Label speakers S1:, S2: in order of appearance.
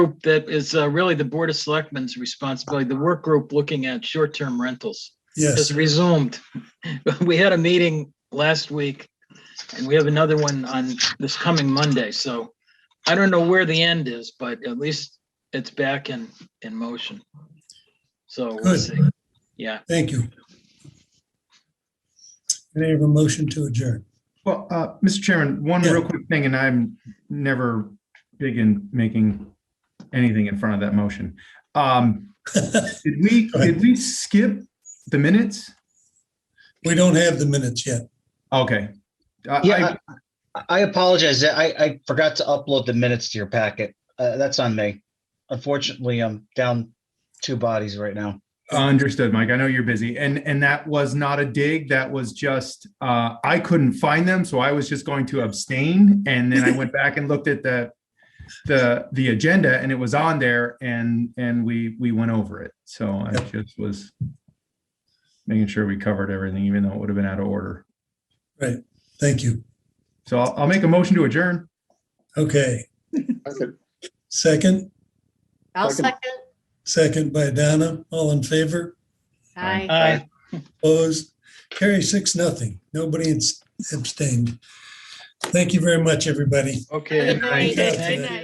S1: group that is uh, really the Board of Selectmen's responsibility, the work group looking at short-term rentals
S2: Yes,
S1: has resumed. We had a meeting last week and we have another one on this coming Monday, so I don't know where the end is, but at least it's back in, in motion. So we'll
S2: Good.
S1: see. Yeah,
S2: thank you. Can I have a motion to adjourn?
S3: Well, uh, Mr. Chairman, one
S2: Yeah.
S3: real quick thing, and I'm never big in making anything in front of that motion. Um, did we,
S2: Go ahead.
S3: did we skip the minutes?
S2: We don't have the minutes yet.
S3: Okay. Uh,
S4: Yeah,
S3: I-
S4: I I apologize. I, I forgot to upload the minutes to your packet. Uh, that's on me. Unfortunately, I'm down two bodies right now.
S3: I Uh, understood, Mike. I know you're busy. And, and that was not a dig. That was just, uh, I couldn't find them, so I was just going to abstain. And then I went back and looked at the, the, the agenda and it was on there and, and we, we went over it. So I
S2: Yep.
S3: just was making sure we covered everything, even though it would have been out of order.
S2: Thank you.
S3: So I'll, I'll make a motion to adjourn.
S2: Okay,
S5: Second.
S2: second,
S6: I'll
S5: Second.
S6: second.
S2: second by Donna, all in favor,
S3: Aye.
S6: Aye.
S1: aye,
S2: opposed, carry six, nothing. Nobody abs- abstained. Thank you very much, everybody.
S1: okay.
S6: Good night.
S1: Thank you.
S6: Good night.